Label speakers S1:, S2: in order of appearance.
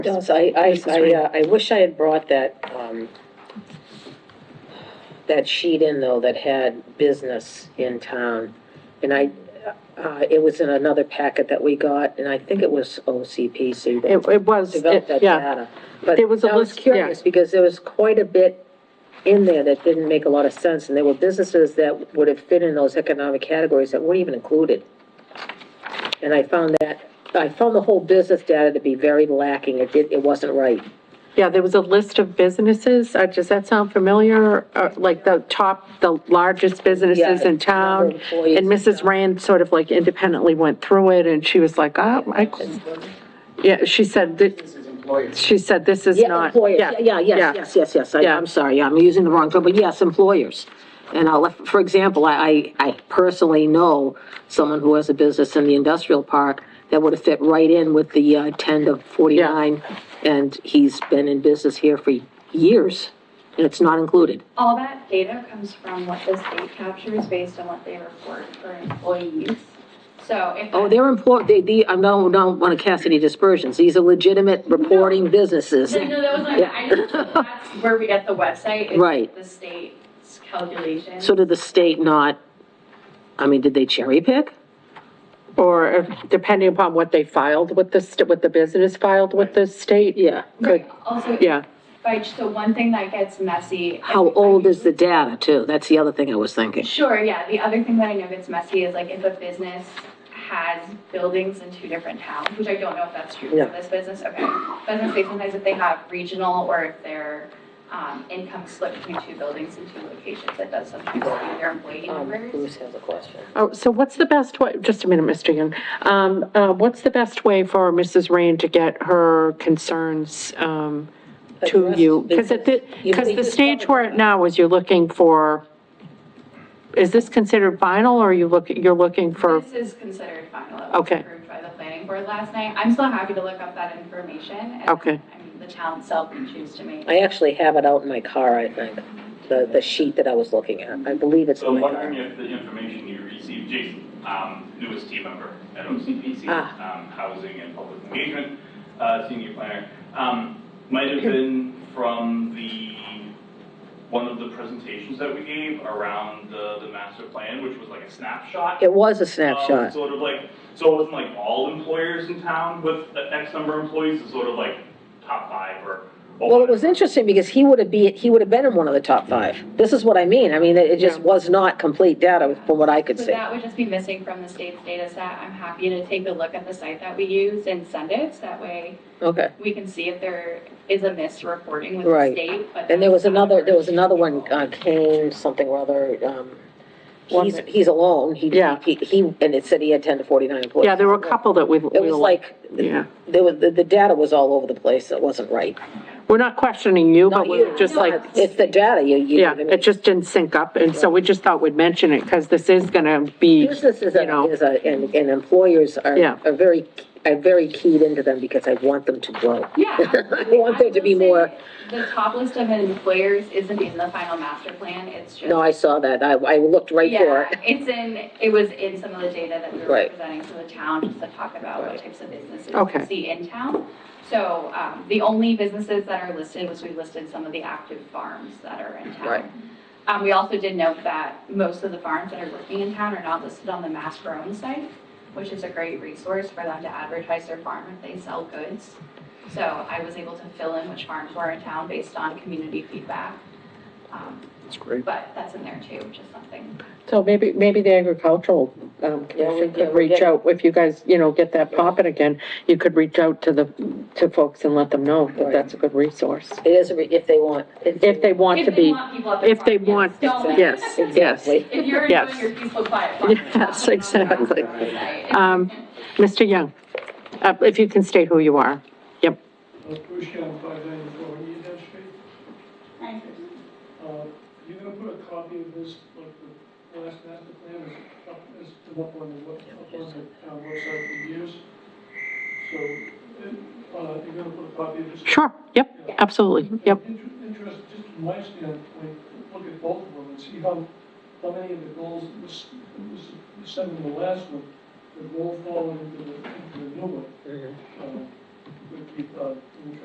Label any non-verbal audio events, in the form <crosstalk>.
S1: Yes, I, I, I, uh, I wish I had brought that, um, that sheet in though that had business in town. And I, uh, it was in another packet that we got and I think it was OCPC that
S2: It, it was,
S1: developed
S2: it-
S1: that
S2: yeah,
S1: data. But I
S2: There was a
S1: was
S2: list, yeah.
S1: curious because there was quite a bit in there that didn't make a lot of sense. And there were businesses that would have fit in those economic categories that weren't even included. And I found that, I found the whole business data to be very lacking. It did, it wasn't right.
S2: yeah, there was a list of businesses, uh, does that sound familiar? Uh, like the top, the largest businesses
S1: Yeah,
S2: in
S1: number
S2: town?
S1: of employees
S2: And
S1: and
S2: Mrs. Rand sort of like independently went through it, and she was like, oh, I, yeah, she said that,
S3: This is employers.
S2: she said this is
S1: Yeah,
S2: not,
S1: employers, yeah, yeah,
S2: yeah.
S1: yes, yes, yes, yes, I-
S2: Yeah.
S1: I'm sorry, I'm using the wrong term, but yes, employers. And I'll, lef- for example, I, I I personally know someone who has a business in the industrial park that would have fit right in with the uh, 10 to 49, and he's been in business here for years, and it's not included.
S4: All that data comes from what the state captures based on what they report for employees. So if.
S1: Oh, they're important, they, the, I don't, don't want to cast any dispersions, these are legitimate reporting businesses.
S4: No, no, that was not, I just, that's where we get the website. is
S1: Right.
S4: The state's calculation.
S1: So did the state not, I mean, did they cherry pick?
S2: or if- depending upon what they filed with the, st- what the business filed with the state?
S1: Yeah.
S2: Could,
S4: Also,
S2: yeah,
S4: by, so one thing that gets messy.
S1: How old is the data too? That's the other thing I was thinking.
S4: Sure, yeah, the other thing that I know gets messy is like if a business has buildings in two different towns, which I don't know if that's true for
S1: Yeah.
S4: this business, okay. But I'm say sometimes if they have regional or if their, um, income split between two buildings in two locations, that does sometimes skew their employee numbers.
S1: Um, has a question?
S2: oh, so what's the best way, just a minute, Mr. Young, um, uh, what's the best way for Mrs. Rand to get her concerns, um, to
S1: Addressed
S2: you? Because at the,
S1: You
S2: because
S1: need
S2: the
S1: to
S2: stage
S1: cover
S2: we're at now is you're looking for, is this considered final, or are you looking, you're looking for,
S4: This is considered final, it was
S2: Okay.
S4: approved by the planning board last night. I'm still happy to look up that information. and,
S2: Okay.
S4: I mean, the town itself can choose to make.
S1: I actually have it out in my car, I think, the, the sheet that I was looking at. I believe it's
S5: So
S1: in
S5: I'm
S1: my
S5: wondering
S1: car.
S5: if the information you received, Jason, um, newest team member at OCPC,
S1: Ah.
S5: um, Housing and Public Engagement, uh, senior planner, um, might have been from the, one of the presentations that we gave around the, the master plan, which was like a snapshot.
S1: It was a
S5: of
S1: snapshot.
S5: Sort of like, so it wasn't like all employers in town with X number of employees, it's sort of like top five or.
S1: Well,
S5: or
S1: it was
S5: whatever.
S1: interesting because he would have be, he would have been in one of the top five. This is what I mean. I mean, it it just
S2: Yeah.
S1: was not complete data from what I could
S4: So
S1: see.
S4: that would just be missing from the state's data set. I'm happy to take a look at the site that we use and send it. So that way
S1: Okay.
S4: we can see if there is a misreporting with the
S1: Right.
S4: state. but
S1: And there was
S4: that's not
S1: another, there was
S4: our-
S1: another one, uh, Kane, something or other, um,
S2: One
S1: he's,
S2: that-
S1: he's alone. He,
S2: Yeah.
S1: he, he, and it said he had ten to forty-nine employees.
S2: yeah, there were a couple that we.
S1: It was like,
S2: Yeah,
S1: there was, the, the data was all over the place. It wasn't right.
S2: we're not questioning you, but
S1: Not
S2: we're
S1: you.
S2: just like,
S1: It's the data, you, you.
S2: yeah, it just didn't sync up, and so we just thought we'd mention it, because this is gonna be,
S1: Businesses
S2: you
S1: are-
S2: know,
S1: is a, and, and employers are,
S2: Yeah.
S1: are very, are very keyed into them because I want them to grow.
S4: Yeah.
S1: <laughs> I want there to be
S4: I will
S1: more,
S4: say The top list of employers isn't in the final master plan. It's just.
S1: no, I saw that. I, I looked right for
S4: Yeah,
S1: it.
S4: it's in, it was in some of the data that we were
S1: Right.
S4: presenting to the town, just to talk about what types of businesses
S2: Okay.
S4: we see in town. So, um, the only businesses that are listed was we listed some of the active farms that are in town.
S1: Right.
S4: Um, we also did note that most of the farms that are working in town are not listed on the Mass Grown site, which is a great resource for them to advertise their farm if they sell goods. So I was able to fill in which farms were in town based on community feedback. Um,
S1: That's great.
S4: but that's in there too, which is something.
S2: so maybe, maybe the agricultural, um,
S1: we-
S2: commission
S1: yeah,
S2: could
S1: we
S2: reach
S1: get-
S2: out, if you guys, you know, get that popping again, you could reach out to the, to folks and let them know that
S1: Right.
S2: that's a good resource,
S1: It is, a re- if they want.
S2: if they want to
S4: If they
S2: be,
S4: want people at their
S2: if they
S4: farm, yes.
S2: want,
S4: Don't-
S2: yes, yes.
S1: Exactly.
S4: If you're
S2: Yes.
S4: enjoying your peaceful quiet farm.
S2: Yes,
S4: not on the
S2: exactly.
S4: farm site.
S2: Um, Mr. Young, uh, if you can state who you are, yep.
S6: Bushcamp Uh, five ninety-four, Union Dam Street. Uh, you're gonna put a copy of this, like, the last master plan is up, is up on the, web- up on the town website for years. So, uh, uh, you're gonna put a copy of this.
S2: Sure, yep, absolutely, yep.
S6: Inter- Interest, just from my standpoint, look at both of them and see how, how many of the goals, this, this, this, seven in the last one, the goal falling into the, into the new one. Uh, would keep, uh, in